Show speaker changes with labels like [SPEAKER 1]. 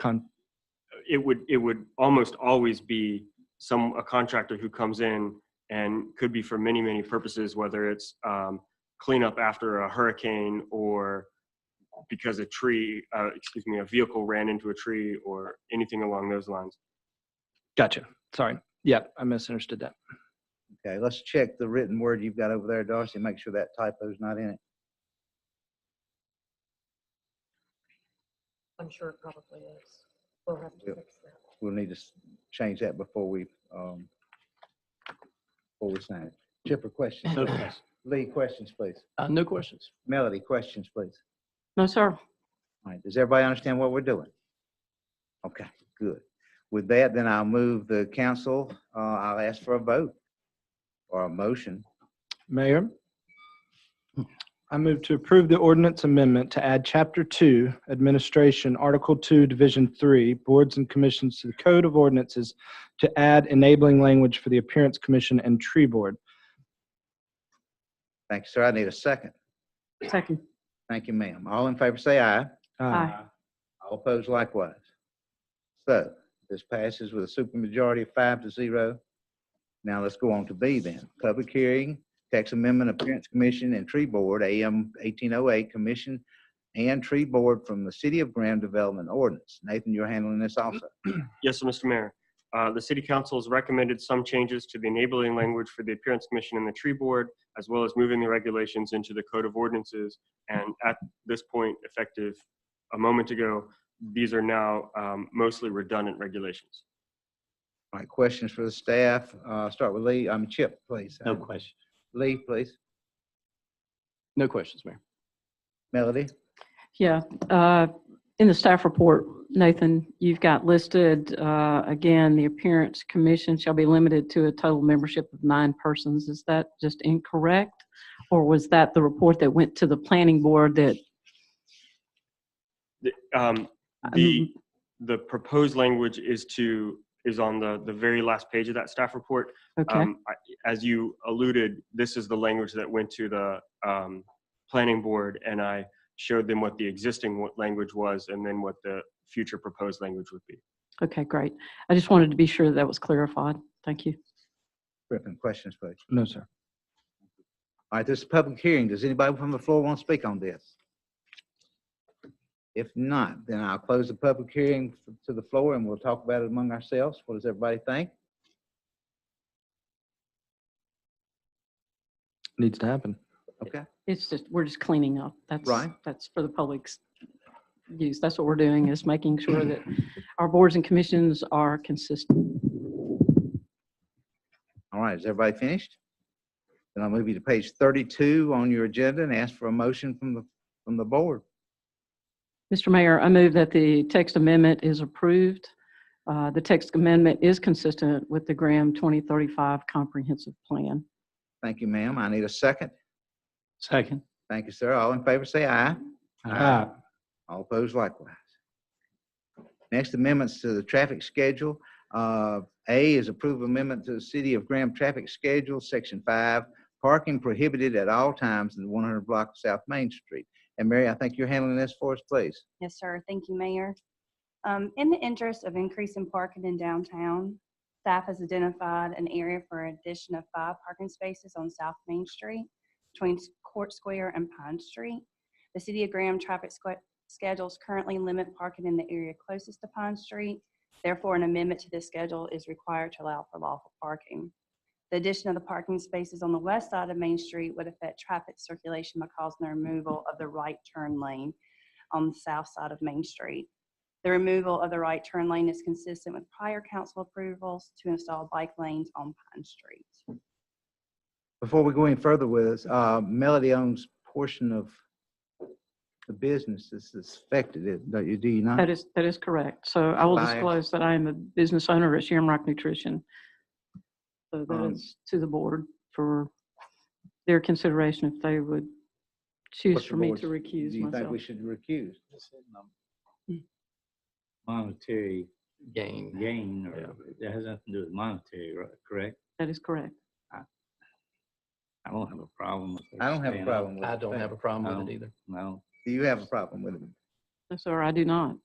[SPEAKER 1] con,
[SPEAKER 2] it would it would almost always be some a contractor who comes in and could be for many many purposes whether it's um, cleanup after a hurricane or because a tree uh, excuse me a vehicle ran into a tree or anything along those lines
[SPEAKER 1] gotcha. Sorry. Yeah, I misunderstood that.
[SPEAKER 3] Okay, let's check the written word you've got over there, Darcy, make sure that typo's not in it.
[SPEAKER 4] I'm sure it probably is. We'll have to
[SPEAKER 3] Yep.
[SPEAKER 4] fix that.
[SPEAKER 3] We'll need to s- change that before we, um, before we sign it. Chip, or questions?
[SPEAKER 5] No
[SPEAKER 3] please? Lee, questions, please.
[SPEAKER 5] Uh, no questions.
[SPEAKER 3] Melody, questions, please.
[SPEAKER 5] No, sir.
[SPEAKER 3] All right, does everybody understand what we're doing? Okay, good. With that, then I'll move the council, uh, I'll ask for a vote or a motion.
[SPEAKER 1] Mayor, I move to approve the ordinance amendment to add Chapter 2, Administration, Article 2, Division 3, Boards and Commissions to the Code of Ordinances to add enabling language for the Appearance Commission and Tree Board.
[SPEAKER 3] Thank you, sir. I need a second.
[SPEAKER 5] Second.
[SPEAKER 3] Thank you, ma'am. All in favor, say aye.
[SPEAKER 1] Uh,
[SPEAKER 3] All opposed likewise. So this passes with a supermajority of five to zero. Now let's go on to B then. Public hearing, tax amendment, appearance commission and tree board, AM 1808, commission and tree board from the city of Graham Development Ordinance. Nathan, you're handling this also.
[SPEAKER 2] yes sir, mr mayor uh, the city council has recommended some changes to the enabling language for the appearance commission and the tree board as well as moving the regulations into the code of ordinances and at this point effective a moment ago these are now um, mostly redundant regulations
[SPEAKER 3] All right, questions for the staff? Uh, Start with Lee, I'm Chip, please.
[SPEAKER 5] No questions.
[SPEAKER 3] Lee, please.
[SPEAKER 5] No questions, Mayor.
[SPEAKER 3] Melody?
[SPEAKER 6] Yeah, uh, in the staff report, Nathan, you've got listed, uh, again, the appearance commission shall be limited to a total membership of nine persons. Is that just incorrect? Or was that the report that went to the planning board that?
[SPEAKER 2] The- um, the the proposed language is to is on the the very last page of that staff report.
[SPEAKER 6] Okay,
[SPEAKER 2] Um, I, as you alluded, this is the language that went to the um, planning board, and I showed them what the existing wa- language was, and then what the future proposed language would be.
[SPEAKER 6] okay, great. I just wanted to be sure that was clarified. Thank you.
[SPEAKER 3] Griffin, questions, please.
[SPEAKER 1] No, sir.
[SPEAKER 3] All right, this is a public hearing. Does anybody from the floor want to speak on this? If not, then I'll close the public hearing f- to the floor and we'll talk about it among ourselves. What does everybody think?
[SPEAKER 1] Needs to happen.
[SPEAKER 3] Okay,
[SPEAKER 6] It's just, we're just cleaning up. That's,
[SPEAKER 3] Right.
[SPEAKER 6] that's for the public's use. That's what we're doing is making sure that our boards and commissions are consistent.
[SPEAKER 3] all right, is everybody finished? Then I'll move you to page 32 on your agenda and ask for a motion from the, from the board.
[SPEAKER 6] Mr. Mayor, I move that the text amendment is approved. Uh, The text amendment is consistent with the Graham 2035 Comprehensive Plan.
[SPEAKER 3] Thank you, ma'am. I need a second.
[SPEAKER 5] Second.
[SPEAKER 3] Thank you, sir. All in favor, say aye. All opposed likewise. Next amendments to the traffic schedule. Uh, A is approve amendment to the City of Graham Traffic Schedule, Section 5, parking prohibited at all times in the 100 block of South Main Street. And Mary, I think you're handling this for us, please.
[SPEAKER 7] Yes, sir. Thank you, Mayor. Um, In the interest of increasing parking in downtown, staff has identified an area for addition of five parking spaces on South Main Street between Court Square and Pine Street. The City of Graham traffic squa- schedules currently limit parking in the area closest to Pine Street. Therefore, an amendment to this schedule is required to allow for lawful parking. The addition of the parking spaces on the west side of Main Street would affect traffic circulation by causing the removal of the right turn lane on the south side of Main Street. The removal of the right turn lane is consistent with prior council approvals to install bike lanes on Pine Street.
[SPEAKER 3] Before we go any further with this, uh, Melody owns portion of the business that's affected, it- don't you, do you not?
[SPEAKER 6] That is, that is correct. So I will
[SPEAKER 3] Aye.
[SPEAKER 6] disclose that I am a business owner at Shamrock Nutrition. So that
[SPEAKER 3] Um,
[SPEAKER 6] is to the board for their consideration if they would choose
[SPEAKER 3] What's the
[SPEAKER 6] for me
[SPEAKER 3] board's-
[SPEAKER 6] to recuse
[SPEAKER 3] Do you think
[SPEAKER 6] myself.
[SPEAKER 3] we should recuse?
[SPEAKER 8] monetary
[SPEAKER 5] Gain.
[SPEAKER 8] gain,
[SPEAKER 5] Yeah.
[SPEAKER 8] or that has nothing to do with monetary, right, correct?
[SPEAKER 6] That is correct.
[SPEAKER 8] I don't have a problem with that.
[SPEAKER 3] I don't have a problem with it.
[SPEAKER 5] I don't have a problem with
[SPEAKER 8] No.
[SPEAKER 5] it either.
[SPEAKER 8] No.
[SPEAKER 3] Do you have a problem with it?
[SPEAKER 6] No, sir, I do not.